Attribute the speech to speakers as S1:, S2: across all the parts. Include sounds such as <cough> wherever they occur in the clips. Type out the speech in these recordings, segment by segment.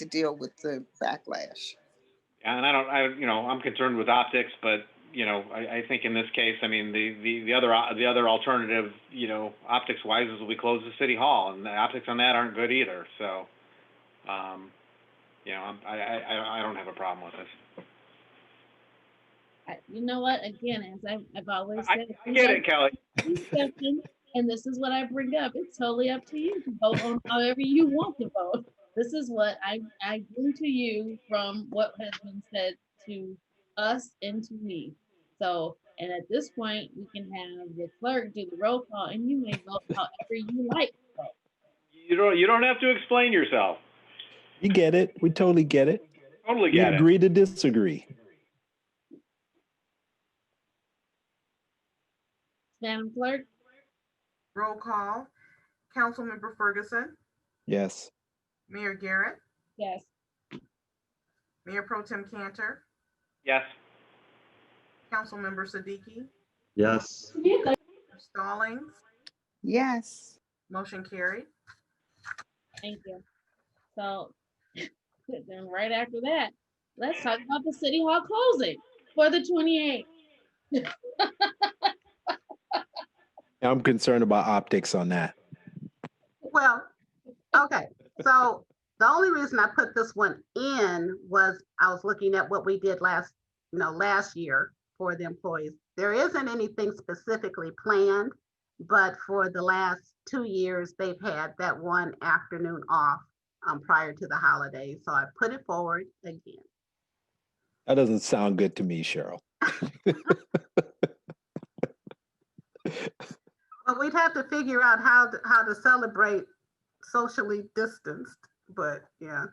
S1: to deal with the backlash.
S2: And I don't, I, you know, I'm concerned with optics, but, you know, I, I think in this case, I mean, the, the, the other, o- the other alternative, you know, optics wise is we close the city hall and the optics on that aren't good either, so, um, you know, I'm- I, I, I, I don't have a problem with this.
S3: I- You know what? Again, as I've, I've always
S2: I,
S3: said. if
S2: I
S3: you
S2: get
S3: have
S2: it, Kelly.
S3: discussion, And this is what I bring up. It's totally up to you to vote on however you want to vote. This is what I, I bring to you from what has been said to us and to me. So, and at this point, we can have the clerk do the roll call and you may vote however you like.
S2: You don't, you don't have to explain yourself.
S4: You get it. We totally get it.
S2: Totally
S4: We
S2: get it.
S4: agree to disagree.
S3: Madam Clerk,
S5: Roll call. Councilmember Ferguson,
S4: Yes.
S5: Mayor Garrett,
S3: yes.
S5: Mayor Pro Tem Cantor,
S2: Yes.
S5: Councilmember Siddiqui,
S6: yes,
S5: Stallings,
S1: Yes.
S5: motion carried.
S3: Thank you. So, then right after that, let's talk about the city hall closing for the twenty-eighth.
S4: I'm concerned about optics on that.
S7: Well, okay, so the only reason I put this one in was I was looking at what we did last, you know, last year for the employees. There isn't anything specifically planned, but for the last two years, they've had that one afternoon off um, prior to the holidays. So I put it forward again.
S4: That doesn't sound good to me, Cheryl.
S7: But we'd have to figure out how to, how to celebrate socially distanced, but yeah.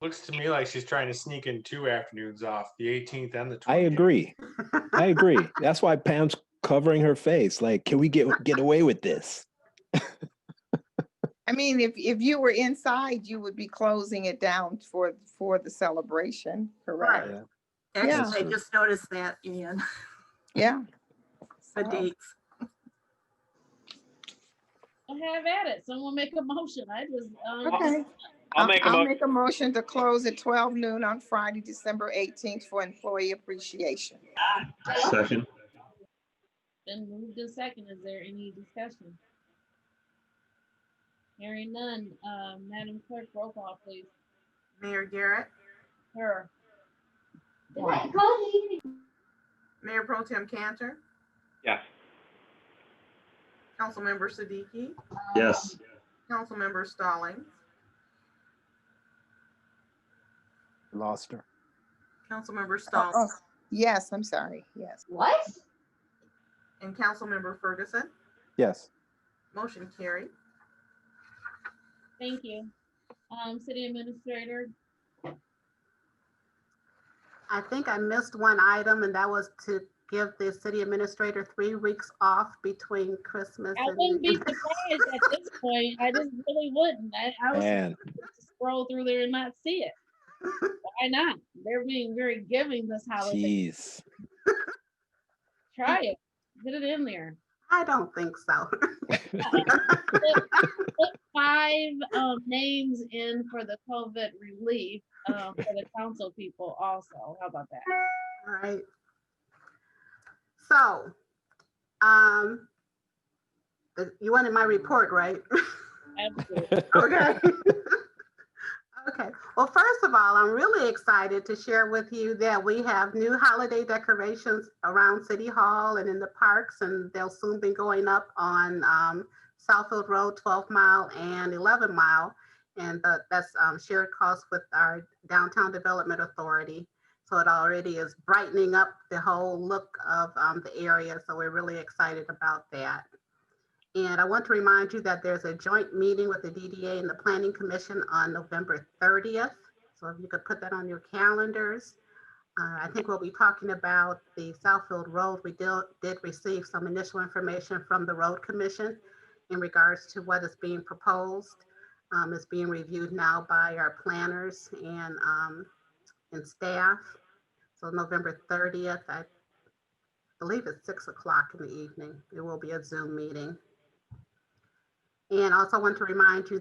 S8: Looks to me like she's trying to sneak in two afternoons off, the 18th and the 20th.
S2: <laughs>
S4: I agree. I agree. That's why Pam's covering her face. Like, can we get get away with this?
S1: I mean, if, if you were inside, you would be closing it down for, for the celebration, correct?
S7: Right.
S1: Actually,
S4: I Yeah.
S9: just noticed that, Ian,
S1: Yeah. So,
S3: Well, have at it. Someone make a motion. I just, um,
S1: Okay.
S2: I'll make a
S1: I'll
S2: motion.
S1: make a motion to close at twelve noon on Friday, December eighteenth for employee appreciation.
S6: second,
S3: been moved in second. Is there any discussion? Hearing none, uh, Madam Clerk, roll call, please.
S5: Mayor Garrett,
S3: Her,
S5: Mayor Pro Tem Cantor,
S2: Yes.
S5: Councilmember Siddiqui,
S6: yes.
S5: Councilmember Stallings,
S4: Lost her.
S1: Oh,
S5: Councilmember
S1: oh,
S5: Stallings,
S1: Yes, I'm sorry, yes.
S5: and Councilmember Ferguson,
S4: Yes.
S5: motion carried.
S3: thank you. Um, City Administrator,
S7: I think I missed one item, and that was to give the city administrator three weeks off between Christmas
S3: I
S7: and.
S3: wouldn't
S7: New
S3: be
S7: Year's.
S3: surprised at this point. I just really wouldn't. I, I was
S4: And
S3: supposed to scroll through there and not see it. Why not? They're being very giving this holiday.
S4: jeez.
S3: Try it. Get it in there.
S7: I don't think so. <laughs>
S3: put five um, names in for the COVID relief um, for the council people also. How about that?
S7: All right. So, um, the- you wanted my report, right?
S3: Absolutely.
S7: Okay. <laughs> Okay, well, first of all, I'm really excited to share with you that we have new holiday decorations around City Hall and in the parks, and they'll soon be going up on um, Southfield Road, 12 Mile and 11 Mile. And the- that's um, shared costs with our Downtown Development Authority. So it already is brightening up the whole look of um, the area, so we're really excited about that. And I want to remind you that there's a joint meeting with the DDA and the Planning Commission on November 30th. So if you could put that on your calendars. Uh, I think we'll be talking about the Southfield Road. We did, did receive some initial information from the Road Commission in regards to what is being proposed. Um, it's being reviewed now by our planners and, um, and staff. So November 30th, I believe it's six o'clock in the evening. It will be a Zoom meeting. And also want to remind you